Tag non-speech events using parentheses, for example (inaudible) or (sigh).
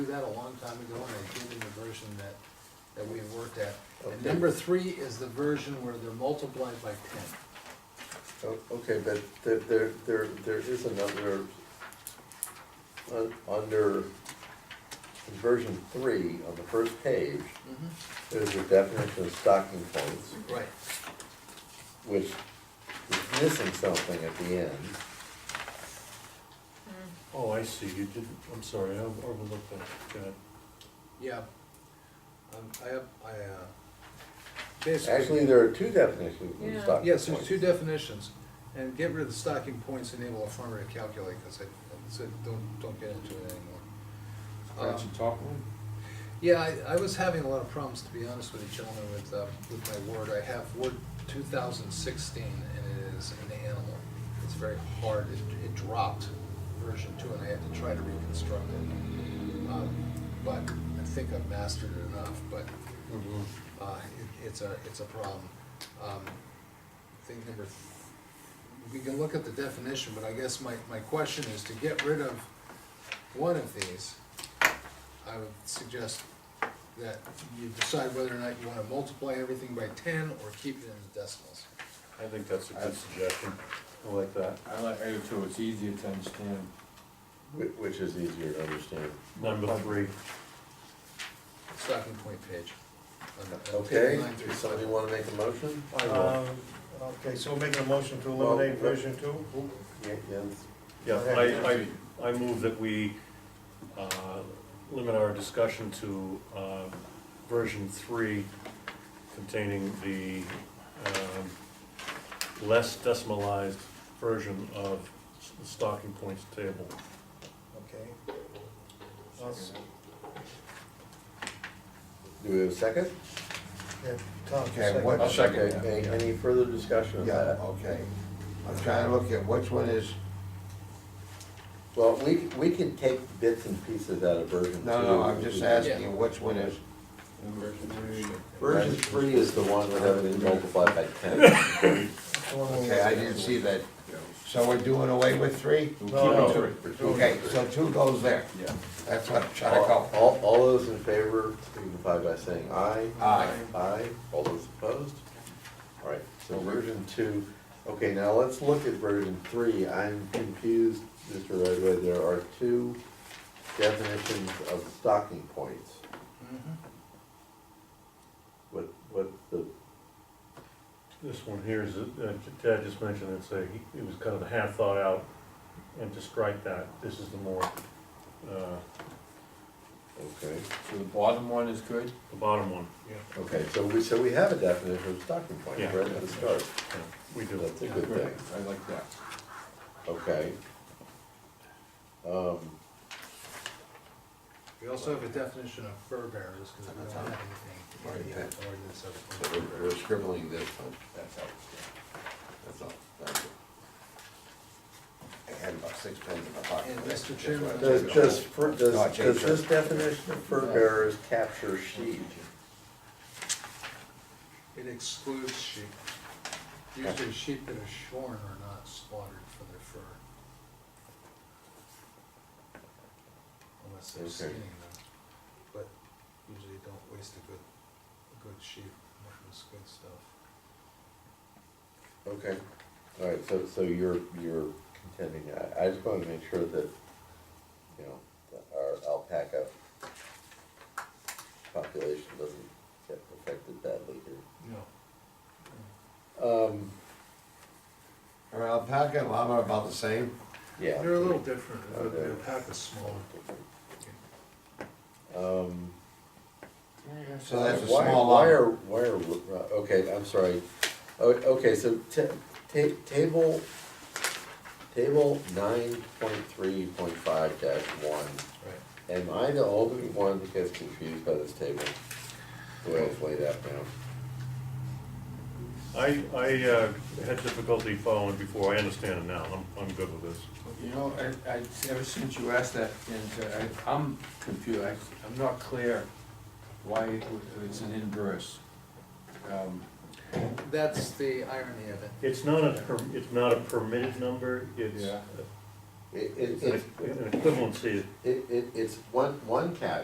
do that a long time ago, and I gave them the version that, that we had worked at. And number three is the version where they're multiplied by ten. Oh, Okay, but there, there, there, there is another, un- under version three on the first page, there's a definition of stocking points, Right. which is missing something at the end. Oh, I see, you didn't, I'm sorry, I overlooked that, got it. Yeah. Um, I have, I, uh, basically. Actually, there are two definitions Yeah. of stocking Yes, there's two points. definitions, and get rid of the stocking points, enable a farmer to calculate, because I, I said, don't, don't get into it anymore. Aren't you Um, talking? Yeah, I, I was having a lot of problems, to be honest with you, gentlemen, with, uh, with my word. I have word two thousand sixteen, and it is an animal. It's very hard. It, it dropped version two, and I had to try to reconstruct it. Um, But I think I've mastered it enough, but, Mm-hmm. uh, it, it's a, it's a problem. Um, Thing number, th- we can look at the definition, but I guess my, my question is to get rid of one of these. I would suggest that you decide whether or not you wanna multiply everything by ten or keep it in the decimals. I think that's a good suggestion, I like that. I like A two, it's easier to understand. Whi- Which is easier to understand. Number three. Stocking point page. on- on page Okay, nine through does somebody 11. wanna make a motion? I will, Um, Okay, so we're making a motion to eliminate Well, version two? Yeah, yes. yeah, I, I, I move that we, uh, limit our discussion to, uh, version three containing the, um, less decimalized version of s- the stocking points table. Okay. Let's- Do we have a second? yeah, Tom, just Okay, second. what- I'll second Okay, that. Any, any further discussion of Yeah, that? okay. I'm trying to look at which one is, Well, we, we can take bits and pieces out of version two. no, no, I'm just asking which one is, Version three is the one with everything multiplied by (laughs) ten. That's the one we- okay, I didn't see that. So we're doing away with three? No, no. Okay, so two goes there. Yeah. That's what I'm trying to All, call. all- all those in favor signify by saying aye. Aye. Aye, all those opposed? All right, so version two, okay, now let's look at version three. I'm confused, Mr. Redway, there are two definitions of stocking points. Mhm. What, what's the, This one here is, uh, Ted just mentioned, it's a, it was kind of a half thought out, and to strike that, this is the more, uh, okay. So the bottom one is good? the bottom one. Okay, so we, so we have a definition of stocking point Yeah. right at the start. Yeah, We do. That's a good thing, I like that. okay. Um, We also have a definition of fur bearers, cause we don't have anything in the ordinance So of. we're- We're scribbling this one, that's all. That's all, thank you. I had about six pens in my pocket. And Mr. That's why I Chairman- took Does, it does, all. fur- No, I does, changed does this it. definition of fur bearers capture sheep? It excludes sheep. Usually sheep that are shorn are not slaughtered for their fur. Unless they're Okay. skinning them, but usually don't waste a good, a good sheep, mutton's good stuff. Okay, all right, so, so you're, you're contending, I, I just wanna make sure that, you know, that our alpaca population doesn't get affected badly here. No. Um, Are alpaca and llama about the same? yeah. They're a little different, Oh, the they're- the pack is smaller. Um. So that's a Uh, Why- small Why llama. are, why are, uh, okay, I'm sorry. O- Okay, so ta- ta- table, table nine point three point five dash one. Right. Am I the only one that gets confused by this table? The way it's laid out now? I, I uh, had difficulty following before, I understand it now, I'm, I'm good with this. You know, I, I, ever since you asked that, and uh, I, I'm confused, I, I'm not clear why it w- it's an inverse. Um, That's the irony of it. It's not a, per- it's not a permitted number, it's, Yeah. It, it, It's an it's, equ- an equivalency it, it, it's one, one cat,